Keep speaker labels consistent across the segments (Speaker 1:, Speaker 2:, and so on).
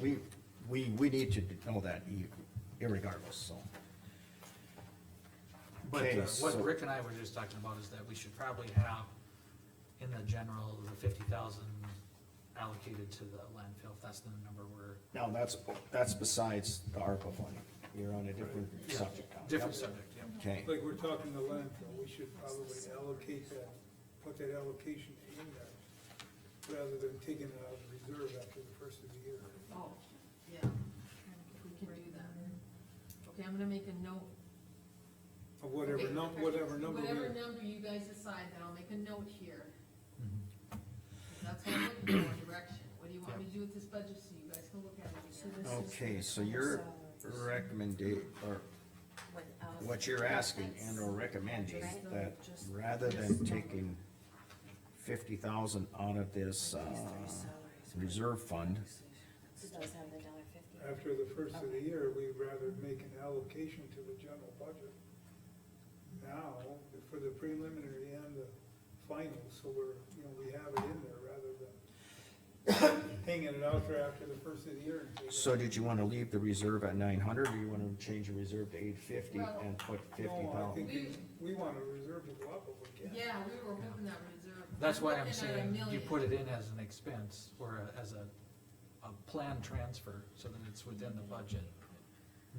Speaker 1: we, we, we need to know that e- irregardless, so.
Speaker 2: But
Speaker 1: Okay,
Speaker 2: uh,
Speaker 1: so-
Speaker 2: what Rick and I were just talking about is that we should probably have in the general, the fifty thousand allocated to the landfill, if that's the number we're,
Speaker 1: Now, that's, that's besides the ARPA funding, you're on a different subject now.
Speaker 2: different
Speaker 1: Yep.
Speaker 2: subject, yeah.
Speaker 1: Okay,
Speaker 3: Like we're talking the landfill, we should probably allocate that, put that allocation in there, rather than taking it out of reserve after the first of the year.
Speaker 4: Oh, yeah, we can do that. Okay, I'm gonna make a note.
Speaker 3: Of whatever
Speaker 4: Okay,
Speaker 3: num, whatever number we,
Speaker 4: Whatever number you guys decide, then I'll make a note here.
Speaker 2: Mm-hmm.
Speaker 4: That's what I'm looking for, direction. What do you want me to do with this budget so you guys can look at it
Speaker 5: So
Speaker 4: again?
Speaker 5: this
Speaker 2: Oh,
Speaker 5: is
Speaker 1: okay,
Speaker 5: the
Speaker 1: so your
Speaker 5: salaries
Speaker 1: recommendation, or
Speaker 5: without-
Speaker 1: what you're asking and or recommending, that rather than taking fifty thousand out of this, uh,
Speaker 5: These three salaries.
Speaker 1: reserve fund,
Speaker 5: It does have the dollar fifty.
Speaker 3: after the first of the year, we'd rather make an allocation to the general budget now for the preliminary and the final, so we're, you know, we have it in there rather than hanging it out there after the first of the year and taking it
Speaker 1: so did you wanna leave the reserve at nine hundred, or you wanna change the reserve to eight fifty
Speaker 4: Well-
Speaker 1: and put fifty thousand?
Speaker 3: No, I think we want to reserve to go up if we can.
Speaker 4: Yeah, we were hoping that reserve.
Speaker 2: That's why I'm
Speaker 4: looking at a
Speaker 2: saying you
Speaker 4: million.
Speaker 2: put it in as an expense or a- as a, a planned transfer, so that it's within the budget,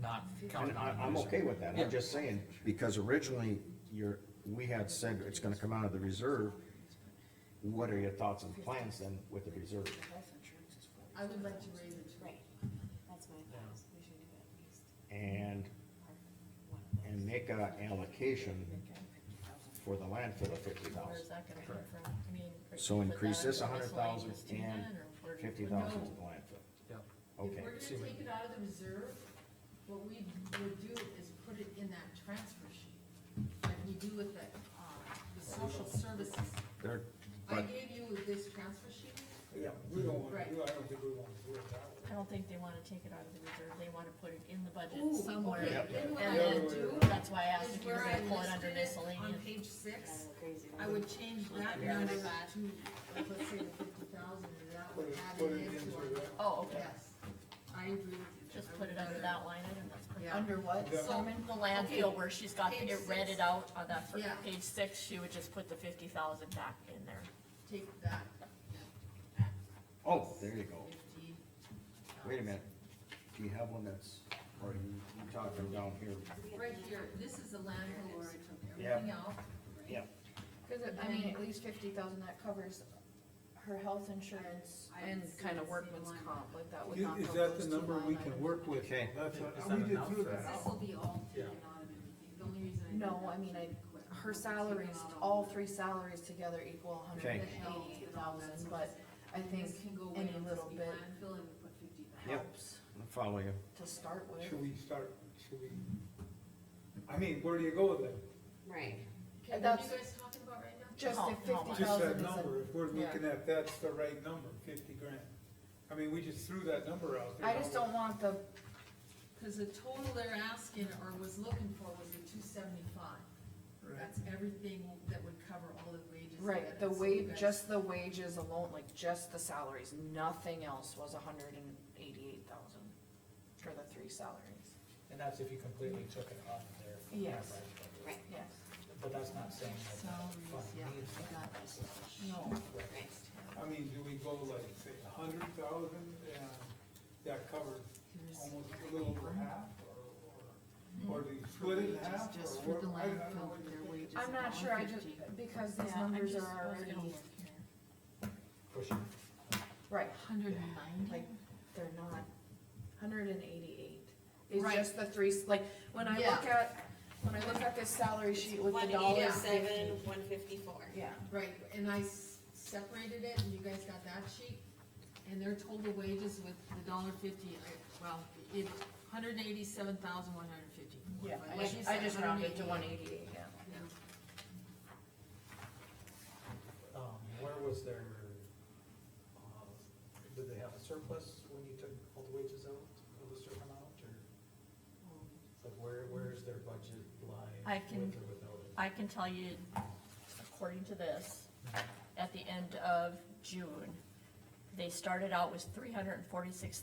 Speaker 2: not counted
Speaker 1: And I,
Speaker 2: on.
Speaker 1: I'm
Speaker 2: using.
Speaker 1: okay with that,
Speaker 2: Yeah.
Speaker 1: I'm just saying, because originally, you're, we had said it's gonna come out of the reserve. What are your thoughts and plans then with the reserve?
Speaker 5: Health insurance is forty.
Speaker 4: I would like to raise it to.
Speaker 5: Right, that's my thoughts, we should do at least
Speaker 1: And,
Speaker 5: part of one of
Speaker 1: and make a allocation for the landfill of fifty
Speaker 6: Where's
Speaker 1: thousand.
Speaker 6: that gonna come from? I mean. are you
Speaker 1: So
Speaker 6: gonna put
Speaker 1: increase
Speaker 6: that
Speaker 1: this
Speaker 6: into
Speaker 1: hundred thousand
Speaker 6: miscellaneous
Speaker 1: and
Speaker 6: to that, or we're-
Speaker 1: fifty thousand to the landfill,
Speaker 2: Yeah,
Speaker 4: If
Speaker 1: okay,
Speaker 4: we're
Speaker 2: See
Speaker 4: gonna
Speaker 2: what-
Speaker 4: take it out of the reserve, what we would do is put it in that transfer sheet, like we do with the, uh, the social services.
Speaker 1: there,
Speaker 4: I
Speaker 1: but,
Speaker 4: gave you this transfer sheet,
Speaker 3: Yeah, we don't want, I don't think we want to do it that way.
Speaker 6: I don't think they wanna take it out of the reserve, they wanna put it in the
Speaker 4: Ooh,
Speaker 6: budget somewhere.
Speaker 4: okay.
Speaker 1: Yep.
Speaker 4: Then what
Speaker 6: And
Speaker 4: I
Speaker 6: then,
Speaker 4: would do
Speaker 6: that's why I asked
Speaker 4: is
Speaker 6: if you were
Speaker 4: where I
Speaker 6: gonna pull it under
Speaker 4: listed it on
Speaker 6: miscellaneous.
Speaker 4: page six,
Speaker 5: Kind of crazy.
Speaker 4: I would change that
Speaker 3: Yeah.
Speaker 4: number to, like, let's say the fifty thousand, and that
Speaker 3: Put
Speaker 4: would
Speaker 3: it,
Speaker 4: add
Speaker 3: put
Speaker 4: it
Speaker 3: it
Speaker 4: into
Speaker 3: into
Speaker 4: our.
Speaker 3: that.
Speaker 6: Oh, okay,
Speaker 4: Yes, I agree with you.
Speaker 6: just
Speaker 4: I
Speaker 6: put
Speaker 4: would
Speaker 6: it under
Speaker 4: rather-
Speaker 6: that line item, that's pretty.
Speaker 4: Yeah.
Speaker 6: Under what?
Speaker 3: Yeah.
Speaker 6: So in the landfill
Speaker 4: Okay,
Speaker 6: where she's got
Speaker 4: page
Speaker 6: it
Speaker 4: six.
Speaker 6: read out on that, fir-
Speaker 4: Yeah.
Speaker 6: page six, she would just put the fifty thousand back in there.
Speaker 4: Take that.
Speaker 1: oh, there you go,
Speaker 4: Fifty.
Speaker 1: wait a minute, do you have one that's, or you, you talking down here?
Speaker 4: Right here, this is the landfill where I took
Speaker 1: Yeah.
Speaker 4: everything out.
Speaker 1: Yeah.
Speaker 7: Cause it- I mean, at least fifty thousand, that covers her health insurance
Speaker 4: I
Speaker 7: and
Speaker 4: didn't see
Speaker 7: kinda
Speaker 4: the
Speaker 7: workman's
Speaker 4: same line.
Speaker 7: comp, like that would
Speaker 3: You-
Speaker 7: knock out
Speaker 3: Is that
Speaker 7: those
Speaker 3: the
Speaker 7: two
Speaker 3: number we
Speaker 7: line
Speaker 3: can
Speaker 7: items.
Speaker 3: work with?
Speaker 1: Okay.
Speaker 3: That's what,
Speaker 2: Is
Speaker 3: we
Speaker 2: that
Speaker 3: did
Speaker 2: enough
Speaker 3: do
Speaker 2: for
Speaker 3: that.
Speaker 4: This will be all taken out of everything, the only reason I. did
Speaker 7: No,
Speaker 4: that
Speaker 7: I mean, I,
Speaker 4: was to
Speaker 7: her
Speaker 4: take
Speaker 7: salaries,
Speaker 4: out
Speaker 7: all three salaries together equal a
Speaker 1: Okay.
Speaker 7: hundred and eighty thousand, but I think
Speaker 4: This can go away
Speaker 7: any
Speaker 4: and
Speaker 7: little
Speaker 4: just be
Speaker 7: bit
Speaker 4: landfill and we put
Speaker 1: Yep.
Speaker 4: 50,000.
Speaker 7: helps
Speaker 1: I'll Follow you,
Speaker 7: to start
Speaker 3: Should
Speaker 7: with.
Speaker 3: we start, should we, I mean, where do you go with that?
Speaker 5: Right.
Speaker 4: Okay, what are
Speaker 7: That's-
Speaker 4: you guys talking about right now?
Speaker 7: Just
Speaker 6: How-
Speaker 7: if
Speaker 6: how much?
Speaker 7: fifty
Speaker 3: Just that
Speaker 7: thousand is
Speaker 3: number,
Speaker 7: a,
Speaker 3: if we're
Speaker 7: yeah.
Speaker 3: looking at, that's the right number, fifty grand. I mean, we just threw that number out there.
Speaker 7: I just don't want the,
Speaker 4: Cause the total they're asking or was looking for was the two seventy-five.
Speaker 3: Right.
Speaker 4: That's everything that would cover all the wages. and
Speaker 7: right, the
Speaker 4: benefits.
Speaker 7: wa,
Speaker 4: You guys-
Speaker 7: just the wages alone, like just the salaries, nothing else was a hundred and eighty-eight thousand for the three salaries.
Speaker 8: And that's if you completely took it off of there.
Speaker 7: Yes.
Speaker 5: Right.
Speaker 7: Yes.
Speaker 8: But that's not saying that that fund
Speaker 4: Salaries, yeah,
Speaker 8: needs
Speaker 4: I got this.
Speaker 7: No.
Speaker 3: I mean, do we go like, say, a hundred thousand, and that covers almost a little over half, or, or, or do
Speaker 7: Mm-hmm.
Speaker 3: you split it in
Speaker 4: Wages
Speaker 3: half, or
Speaker 4: Just for
Speaker 3: what?
Speaker 4: the
Speaker 3: I- I don't know
Speaker 4: landfill,
Speaker 3: what you
Speaker 4: their
Speaker 3: think.
Speaker 4: wages.
Speaker 7: I'm
Speaker 4: are
Speaker 7: not sure, I just,
Speaker 4: 150.
Speaker 7: because
Speaker 6: Yeah,
Speaker 7: these
Speaker 6: I'm
Speaker 7: numbers
Speaker 6: just-
Speaker 7: are
Speaker 6: I was
Speaker 7: already,
Speaker 6: gonna look here.
Speaker 8: pushing.
Speaker 7: right,
Speaker 6: Hundred and ninety?
Speaker 7: like, they're not, hundred and eighty-eight. It's
Speaker 4: Right.
Speaker 7: just the three, s- like, when I look at, when I look at this salary sheet with the
Speaker 5: One
Speaker 7: dollar
Speaker 5: eighty-seven,
Speaker 7: fifty.
Speaker 5: one fifty-four.
Speaker 7: Yeah,
Speaker 4: Right, and I s- separated it, and you guys got that sheet, and their total wages with the dollar fifty, I- well, it, hundred and eighty-seven thousand one hundred fifty.
Speaker 7: yeah, I just, I just rounded to one eighty-eight, yeah.
Speaker 8: Um, where was their, uh, did they have a surplus when you took all the wages out of the certain amount, or? Like where, where's their budget
Speaker 6: Um, I
Speaker 8: line
Speaker 6: can-
Speaker 8: with or without it?
Speaker 6: I can tell you, according to this, at the end of June, they started out with three hundred and forty-six